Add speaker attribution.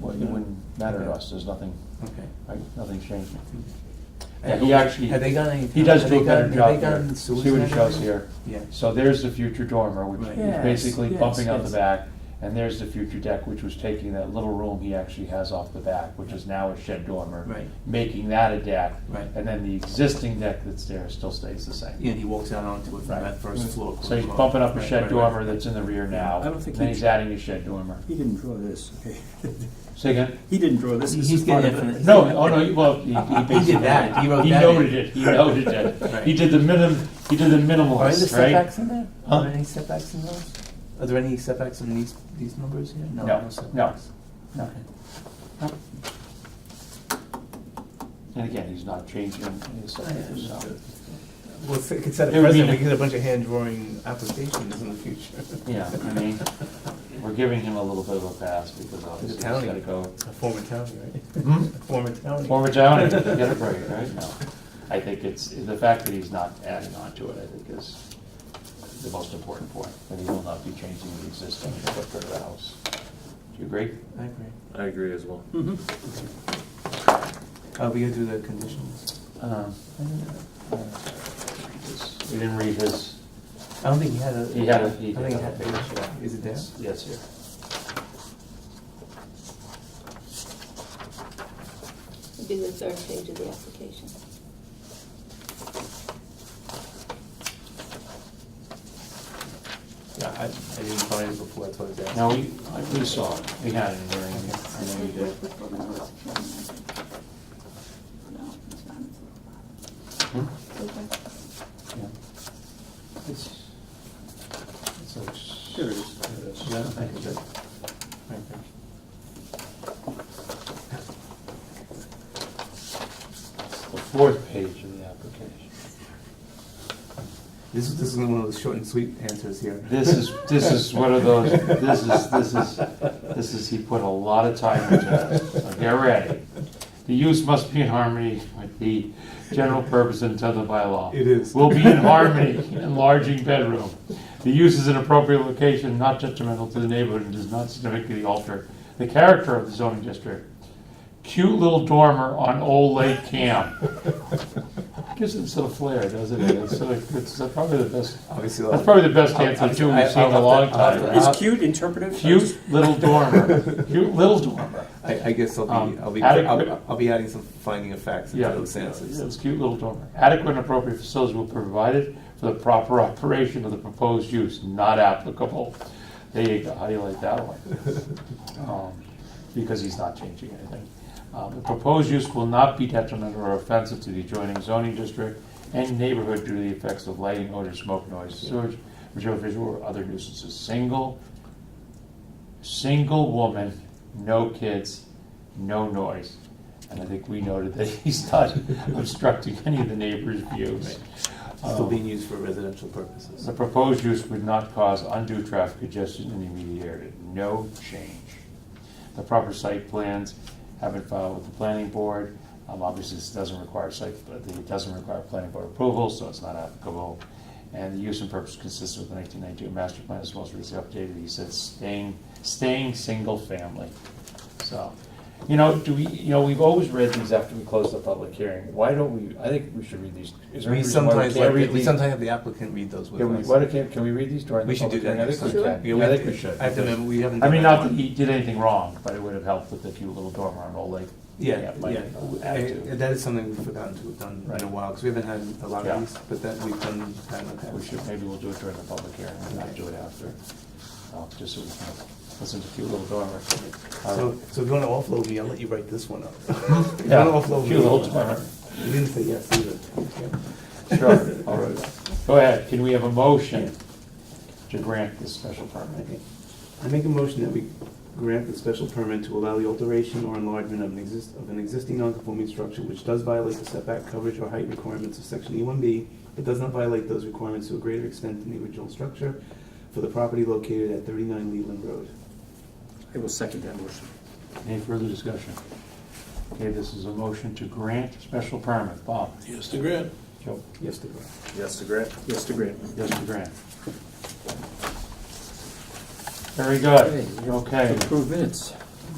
Speaker 1: but it wouldn't matter to us, there's nothing,
Speaker 2: Okay.
Speaker 1: right, nothing's changing.
Speaker 2: Have
Speaker 1: he
Speaker 2: they-
Speaker 1: actually-
Speaker 2: Have they got any?
Speaker 1: He does
Speaker 2: have
Speaker 1: do a
Speaker 2: they
Speaker 1: better
Speaker 2: got- have
Speaker 1: job
Speaker 2: they gotten
Speaker 1: here, see what
Speaker 2: suicide
Speaker 1: he shows
Speaker 2: rate?
Speaker 1: here.
Speaker 2: Yeah.
Speaker 1: So there's the future dormer, which
Speaker 2: Right.
Speaker 1: is
Speaker 3: Yes,
Speaker 1: basically
Speaker 3: yes,
Speaker 1: bumping out the
Speaker 3: yes.
Speaker 1: back, and there's the future deck, which was taking that little room he actually has off the back, which is now a shed dormer.
Speaker 2: Right.
Speaker 1: Making that a deck.
Speaker 2: Right.
Speaker 1: And then the existing deck that's there still stays the same.
Speaker 2: And he walks out onto it from
Speaker 1: Right.
Speaker 2: that first floor.
Speaker 1: So he's
Speaker 2: corridor.
Speaker 1: bumping up a
Speaker 2: Right,
Speaker 1: shed
Speaker 2: right,
Speaker 1: dormer
Speaker 2: right.
Speaker 1: that's in the rear now,
Speaker 3: I don't think
Speaker 1: then
Speaker 3: he-
Speaker 1: he's adding a shed dormer.
Speaker 3: He didn't draw this, okay?
Speaker 1: Say again?
Speaker 3: He didn't draw this. This
Speaker 2: He's
Speaker 3: is part
Speaker 2: getting
Speaker 3: of
Speaker 2: it
Speaker 3: it.
Speaker 2: for the-
Speaker 1: No, oh no, he- well, he, he
Speaker 2: He
Speaker 1: basically-
Speaker 2: did that, he wrote
Speaker 1: He
Speaker 2: that.
Speaker 1: noted it, he noted it.
Speaker 2: Right.
Speaker 1: He did the minim, he did the
Speaker 2: Are there
Speaker 1: minimalist, right?
Speaker 2: setbacks in there?
Speaker 1: Huh?
Speaker 2: Are there any setbacks in those? Are there any setbacks in these, these numbers here?
Speaker 1: No, no.
Speaker 2: setbacks.
Speaker 1: No.
Speaker 2: Okay.
Speaker 1: And again, he's not changing his subdivision, so.
Speaker 4: Well, it's- it could set
Speaker 1: It
Speaker 4: a
Speaker 1: would be
Speaker 4: precedent,
Speaker 1: an-
Speaker 4: we could get a bunch of hand drawing applications in the future.
Speaker 1: Yeah, I mean, we're giving him a little bit of a pass because obviously he's
Speaker 4: county.
Speaker 1: gotta go.
Speaker 4: A former county, right?
Speaker 1: Hmm?
Speaker 4: A former county.
Speaker 1: Former town, get a break, right? No. I think it's, the fact that he's not adding on to it, I think is the most important point, that he will not be changing the existing footprint of the house. Do you agree?
Speaker 2: I agree.
Speaker 5: I agree as well.
Speaker 3: Mhm.
Speaker 2: Are Uh, we gonna do the conditions?
Speaker 1: Um, We didn't read his,
Speaker 2: I don't think he had a.
Speaker 1: He had a-
Speaker 2: I
Speaker 1: he
Speaker 2: think he
Speaker 1: did.
Speaker 2: had a, is it there?
Speaker 1: yes, here.
Speaker 6: Would be the third page of the application.
Speaker 2: Yeah, I, I didn't find it before, that's why I was asking.
Speaker 1: No, we, I- we saw it, we had it in there, and I know you
Speaker 6: Wait,
Speaker 1: did.
Speaker 6: wait, wait, no, it's a problem, I think. No, it's not, it's
Speaker 1: Hmm?
Speaker 6: a problem. Okay.
Speaker 1: Yeah. It's, it's like.
Speaker 3: Here it is. There it is.
Speaker 1: Yeah, I think so.
Speaker 2: Okay.
Speaker 1: The fourth page of the application.
Speaker 2: This is, this is one of those short and sweet answers here.
Speaker 1: This is, this is one of those, this is, this is, this is, he put a lot of time into it. So Get ready. The use must be in harmony with the general purpose and intent of the bylaw.
Speaker 2: It is.
Speaker 1: Will be in harmony, enlarging bedroom. The use is an appropriate location, not detrimental to the neighborhood, and does not significantly alter the character of the zoning district. Cute little dormer on Old Lake Camp. Gives it some flair, doesn't it? It's sort of- it's probably the best
Speaker 2: Obviously.
Speaker 1: that's probably the best answer too we've seen in a long time.
Speaker 3: Is cute interpretive?
Speaker 1: Cute little dormer, cute little dormer.
Speaker 2: I, I guess I'll be,
Speaker 1: Um,
Speaker 2: I'll be,
Speaker 1: adequate-
Speaker 2: I'll, I'll be adding some finding of facts into
Speaker 1: Yeah,
Speaker 2: those answers.
Speaker 1: it's cute little dormer. Adequate and appropriate facilities will be provided for the proper operation of the proposed use, not applicable. There you go, how do you like that one? Um, Because he's not changing anything. Um, The proposed use will not be detrimental or offensive to the adjoining zoning district and neighborhood due to the effects of lighting, odor, smoke, noise, sewage, visual, visual, or other nuisances. Single single woman, no kids, no noise. And I think we noted that he's not obstructing any of the neighbors' views.
Speaker 2: Still
Speaker 1: Um,
Speaker 2: being used for residential purposes.
Speaker 1: The proposed use would not cause undue traffic congestion in the immediate area, no change. The proper site plans have been filed with the planning board. Um, obviously, this doesn't require site, but it doesn't require planning board approval, so it's not applicable. And the use and purpose consistent with the nineteen ninety-two master plan as well as recently updated, he says staying, staying single family. So, you know, do we, you know, we've always read these after we close the public hearing. Why don't we, I think we should read these. Is there any
Speaker 2: We
Speaker 1: reason why
Speaker 2: sometimes,
Speaker 1: can't
Speaker 2: like-
Speaker 1: read
Speaker 2: we
Speaker 1: these?
Speaker 2: sometimes have the applicant read those with
Speaker 1: Can we,
Speaker 2: us.
Speaker 1: why do- can, can we read these during
Speaker 2: We
Speaker 1: the
Speaker 2: should do
Speaker 1: public
Speaker 2: that
Speaker 1: hearing? I
Speaker 2: next
Speaker 1: think we
Speaker 2: time.
Speaker 6: Sure.
Speaker 1: can.
Speaker 2: Yeah,
Speaker 1: Yeah, I think we should.
Speaker 2: I have to remember, we haven't.
Speaker 1: I
Speaker 2: done
Speaker 1: mean,
Speaker 2: that
Speaker 1: not that
Speaker 2: one.
Speaker 1: he did anything wrong, but it would have helped with the cute little dormer on Old Lake.
Speaker 2: Yeah,
Speaker 1: my
Speaker 2: yeah,
Speaker 1: attitude.
Speaker 2: I- that is something we've forgotten to have done
Speaker 1: Right.
Speaker 2: in a while, because we haven't had a lot
Speaker 1: Yeah.
Speaker 2: of these, but that we've done that in the past.
Speaker 1: We should, maybe we'll do it during the public hearing, and not do it after, Uh, just so we can listen to cute little dormer. Uh,
Speaker 2: So, so if you wanna offload me, I'll let you write this one up. If you
Speaker 1: Yeah,
Speaker 2: wanna offload me.
Speaker 1: cute little dormer,
Speaker 2: You didn't say yes either. Yeah.
Speaker 1: sure, all right. Go ahead, can we have a motion to grant this special permit?
Speaker 2: Okay. I make a motion that we grant the special permit to allow the alteration or enlargement of an exist, of an existing non-conforming structure which does violate the setback coverage or height requirements of section E one B, but does not violate those requirements to a greater extent than the original structure for the property located at thirty-nine Leland Road.
Speaker 3: I will second that motion.
Speaker 1: Any further discussion? Okay, this is a motion to grant special permit, Bob?
Speaker 5: Yes, to grant.
Speaker 1: Joe?
Speaker 2: Yes, DeGraw.
Speaker 5: Yes, to grant.
Speaker 3: Yes, to grant.
Speaker 1: Yes, to grant. Very good, okay.
Speaker 3: Approve minutes.